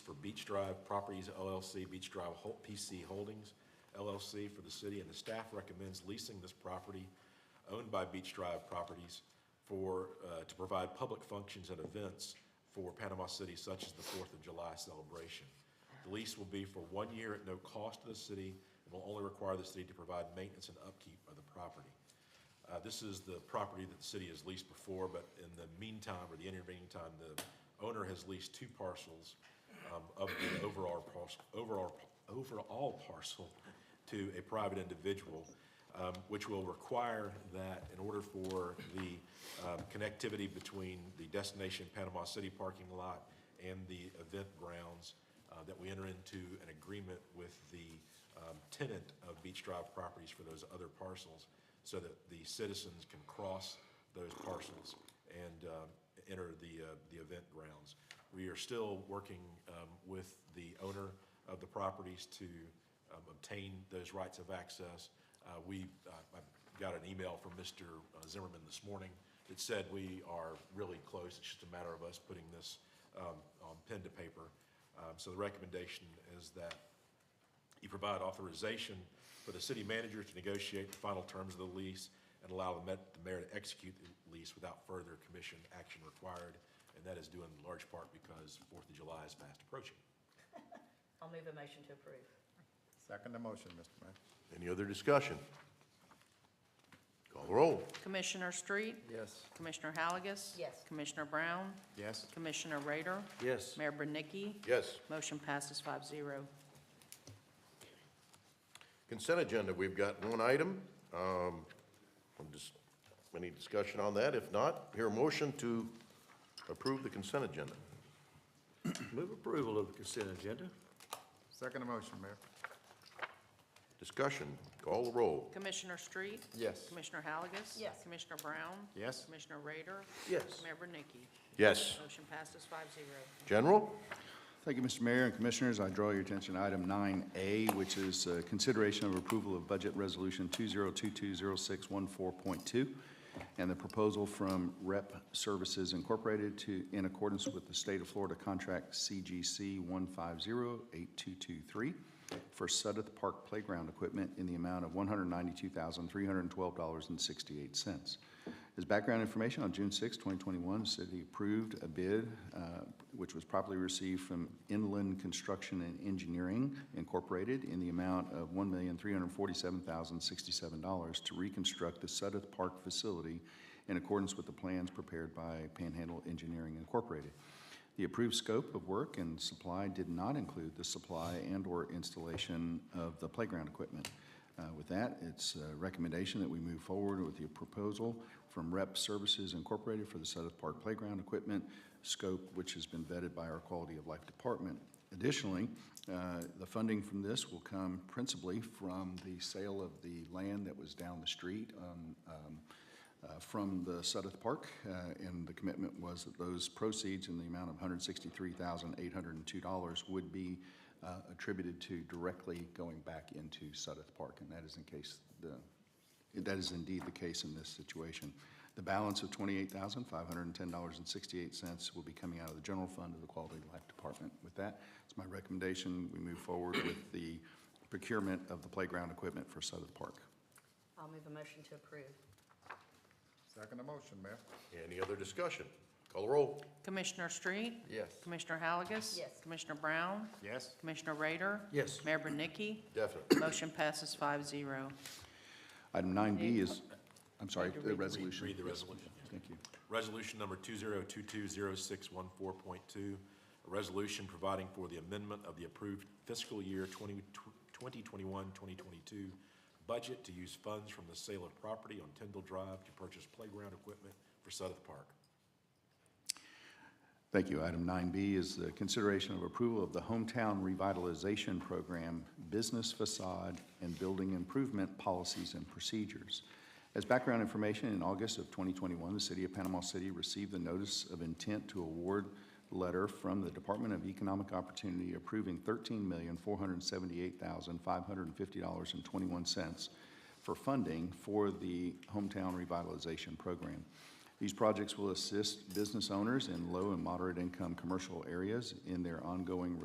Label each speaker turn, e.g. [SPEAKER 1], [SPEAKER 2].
[SPEAKER 1] Beach Drive Properties LLC, Beach Drive Hol- PC Holdings LLC for the city, and the staff recommends leasing this property owned by Beach Drive Properties for, uh, to provide public functions and events for Panama City, such as the Fourth of July celebration. The lease will be for one year at no cost to the city, and will only require the city to provide maintenance and upkeep of the property. Uh, This is the property that the city has leased before, but in the meantime, or the intervening time, the owner has leased two parcels um, of the overall parcel, overall, overall parcel to a private individual, um, which will require that in order for the um, connectivity between the destination Panama City parking lot and the event grounds, uh, that we enter into an agreement with the um, tenant of Beach Drive Properties for those other parcels so that the citizens can cross those parcels and um, enter the, uh, the event grounds. We are still working um, with the owner of the properties to um, obtain those rights of access. Uh, We, uh, I got an email from Mr. Zimmerman this morning that said we are really close. It's just a matter of us putting this um, on pen to paper. Um, So the recommendation is that you provide authorization for the city manager to negotiate the final terms of the lease and allow the met- the mayor to execute the lease without further commission action required. And that is due in large part because Fourth of July is fast approaching.
[SPEAKER 2] I'll move a motion to approve.
[SPEAKER 3] Second the motion, Mr. Mayor.
[SPEAKER 4] Any other discussion? Call the roll.
[SPEAKER 5] Commissioner Street?
[SPEAKER 3] Yes.
[SPEAKER 5] Commissioner Halagus?
[SPEAKER 2] Yes.
[SPEAKER 5] Commissioner Brown?
[SPEAKER 3] Yes.
[SPEAKER 5] Commissioner Rader?
[SPEAKER 4] Yes.
[SPEAKER 5] Mayor Bernicki?
[SPEAKER 4] Yes.
[SPEAKER 5] Motion passes five zero.
[SPEAKER 4] Consent agenda, we've got one item. Um, I'm just- Any discussion on that? If not, hear a motion to approve the consent agenda.
[SPEAKER 6] Move approval of the consent agenda?
[SPEAKER 3] Second the motion, Mayor.
[SPEAKER 4] Discussion, call the roll.
[SPEAKER 5] Commissioner Street?
[SPEAKER 3] Yes.
[SPEAKER 5] Commissioner Halagus?
[SPEAKER 2] Yes.
[SPEAKER 5] Commissioner Brown?
[SPEAKER 3] Yes.
[SPEAKER 5] Commissioner Rader?
[SPEAKER 4] Yes.
[SPEAKER 5] Mayor Bernicki?
[SPEAKER 4] Yes.
[SPEAKER 5] Motion passes five zero.
[SPEAKER 4] General?
[SPEAKER 7] Thank you, Mr. Mayor and Commissioners. I draw your attention to item 9A, which is uh, consideration of approval of Budget Resolution 20220614.2 and the proposal from Rep Services Incorporated to, in accordance with the State of Florida Contract CGC 1508223 for Sudeth Park Playground Equipment in the amount of $192,312.68. As background information, on June 6, 2021, the city approved a bid uh, which was properly received from Inland Construction and Engineering Incorporated in the amount of $1,347,067 to reconstruct the Sudeth Park facility in accordance with the plans prepared by Panhandle Engineering Incorporated. The approved scope of work and supply did not include the supply and/or installation of the playground equipment. Uh, With that, it's a recommendation that we move forward with the proposal from Rep Services Incorporated for the Sudeth Park Playground Equipment scope, which has been vetted by our Quality of Life Department. Additionally, uh, the funding from this will come principally from the sale of the land that was down the street on um, uh, from the Sudeth Park, uh, and the commitment was that those proceeds in the amount of $163,802 would be uh, attributed to directly going back into Sudeth Park, and that is in case the, that is indeed the case in this situation. The balance of $28,510.68 will be coming out of the general fund of the Quality of Life Department. With that, it's my recommendation, we move forward with the procurement of the playground equipment for Sudeth Park.
[SPEAKER 2] I'll move a motion to approve.
[SPEAKER 3] Second the motion, Mayor.
[SPEAKER 4] Any other discussion? Call the roll.
[SPEAKER 5] Commissioner Street?
[SPEAKER 3] Yes.
[SPEAKER 5] Commissioner Halagus?
[SPEAKER 2] Yes.
[SPEAKER 5] Commissioner Brown?
[SPEAKER 3] Yes.
[SPEAKER 5] Commissioner Rader?
[SPEAKER 6] Yes.
[SPEAKER 5] Mayor Bernicki?
[SPEAKER 4] Definitely.
[SPEAKER 5] Motion passes five zero.
[SPEAKER 7] Item 9B is, I'm sorry, the resolution.
[SPEAKER 1] Read the resolution.
[SPEAKER 7] Thank you.
[SPEAKER 1] Resolution number 20220614.2, a resolution providing for the amendment of the approved fiscal year 20 2021-2022 budget to use funds from the sale of property on Tyndall Drive to purchase playground equipment for Sudeth Park.
[SPEAKER 7] Thank you. Item 9B is the consideration of approval of the Hometown Revitalization Program Business Facade and Building Improvement Policies and Procedures. As background information, in August of 2021, the City of Panama City received the notice of intent to award letter from the Department of Economic Opportunity approving $13,478,550.21 for funding for the Hometown Revitalization Program. These projects will assist business owners in low and moderate income commercial areas in their ongoing